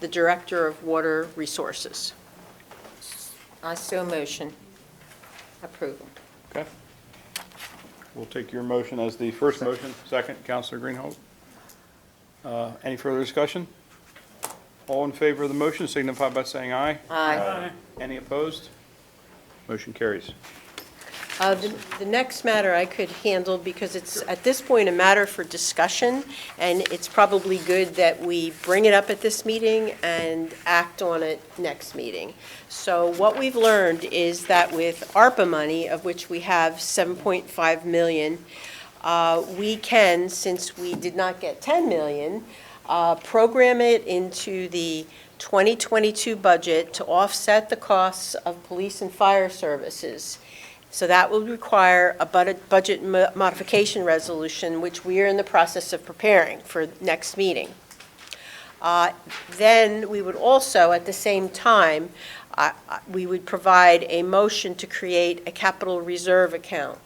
the Director of Water Resources. I so motion approval. Okay. We'll take your motion as the first motion, second, Counselor Greenhold. Uh, Any further discussion? All in favor of the motion signify by saying aye. Aye. Any opposed? Motion carries. Uh, The the next matter I could handle because it's, at this point, a matter for discussion, and it's probably good that we bring it up at this meeting and act on it next meeting. So what we've learned is that with ARPA money, of which we have 7.5 million, uh, we can, since we did not get 10 million, uh, program it into the 2022 budget to offset the costs of police and fire services. So that will require a bud- budget mo- modification resolution, which we are in the process of preparing for next meeting. Uh, Then we would also, at the same time, uh, uh, we would provide a motion to create a capital reserve account.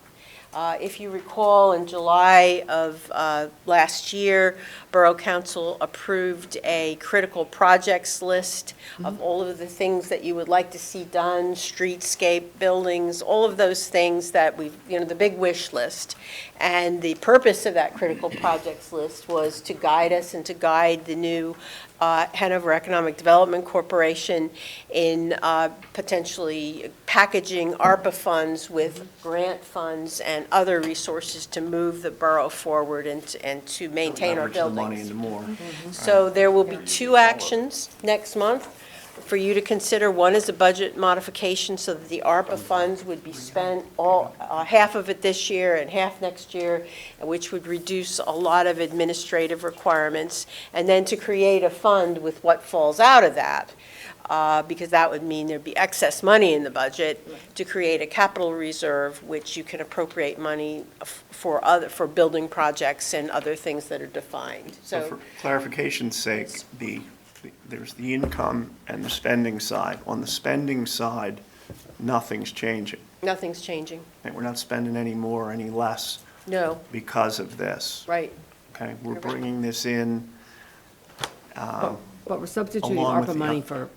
Uh, If you recall, in July of uh, last year, Borough Council approved a critical projects list of all of the things that you would like to see done, streetscape, buildings, all of those things that we, you know, the big wish list. And the purpose of that critical projects list was to guide us and to guide the new uh, Hanover Economic Development Corporation in uh, potentially packaging ARPA funds with grant funds and other resources to move the borough forward and, to- and to maintain our Leverage the money buildings. into more. So there will be two actions next month for you to consider. One is a budget modification so that the ARPA funds would be spent all, uh, half of it this year and half next year, which would reduce a lot of administrative requirements. And then to create a fund with what falls out of that, uh, because that would mean there'd be excess money in the budget to create a capital reserve, which you can appropriate money f- for other, for building projects and other things that are defined. So for clarification's sake, the, there's the income and the spending side. On the spending side, nothing's changing. Nothing's changing. And we're not spending any more, or any less No, because of this. right. Okay, we're bringing this in, But we're substituting Um, Along with ARPA the- money for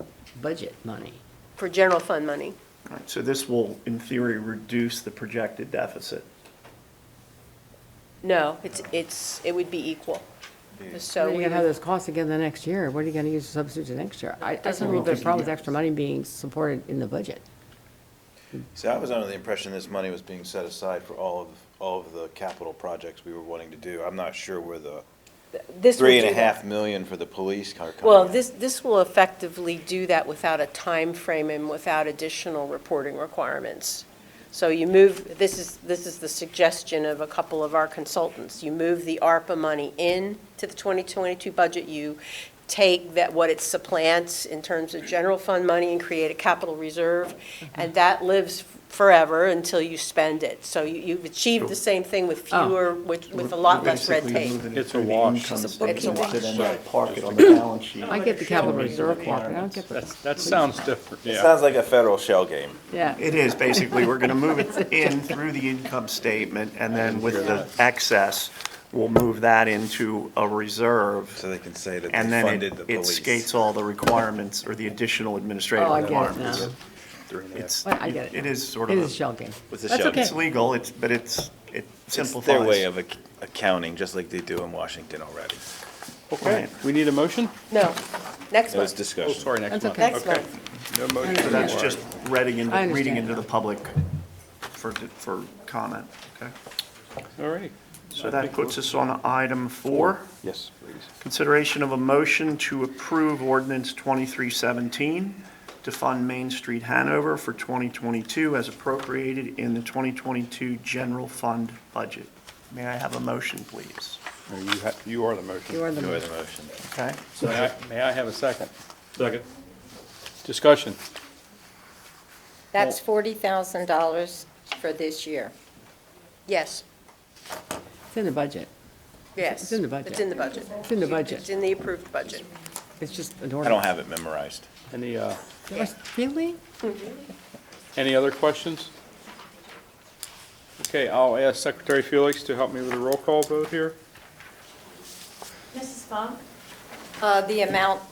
budget money. For general fund money. all right, so this will, in theory, reduce the projected deficit. No, it's, it's, it would be equal. So You're we gonna have would, those costs again the next year. What are you gonna use to substitute the next year? I, I Doesn't don't think there's a mean- problem with extra money being supported in the budget. See, I was under the impression this money was being set aside for all of, all of the capital projects we were wanting to do. I'm not sure where the this would three and a do half that. million for the police car coming Well, in. this, this will effectively do that without a time frame and without additional reporting requirements. So you move, this is, this is the suggestion of a couple of our consultants. You move the ARPA money in to the 2022 budget, you take that, what it supplants in terms of general fund money and create a capital reserve, Mm-hmm. and that lives forever until you spend it. So you- you've achieved the same thing with Oh. fewer, with, with a We're- lot we're less red basically tape. moving it It's a through the wash. income It's a- it's a statement to then wash. Park it on the balance sheet. I get the capital reserve part, but I don't get the. That's- That sounds different, It yeah. sounds like a federal shell game. Yeah. It is, basically, we're going to move it in through the income statement, and then with the excess, we'll move that into a reserve, So they can say that and they then funded the it- it police. skates all the requirements, or the additional administrative Oh, I get it now. requirements. It's, Well, I get it. it is sort It is of, a- shell game. With the That's shell okay. it's legal, it's, but it's, it It's simplifies. their way of ac- accounting, just like they do in Washington already. Okay, we need a motion? No, next It was month, Oh, discussion. sorry, next That's month. okay. next Okay. month. No motion. So that's just reading into, I understand reading into now. the public for, for comment, okay? All right. So that puts us on item four. Yes, please. Consideration of a motion to approve ordinance 2317 to fund Main Street Hanover for 2022 as appropriated in the 2022 general fund budget. May I have a motion, please? Or You ha- you are the motion. You are the Enjoy the motion. Okay? May I- May I have a second? Second. Discussion. That's forty thousand dollars for this year. Yes, It's in the budget. yes. It's in the budget. It's in the budget. It's in the It's budget. in the approved budget. It's just an I order. don't have it memorized. Any, uh, Really? any other questions? Okay, I'll ask Secretary Felix to help me with a roll call vote here. Uh, the amount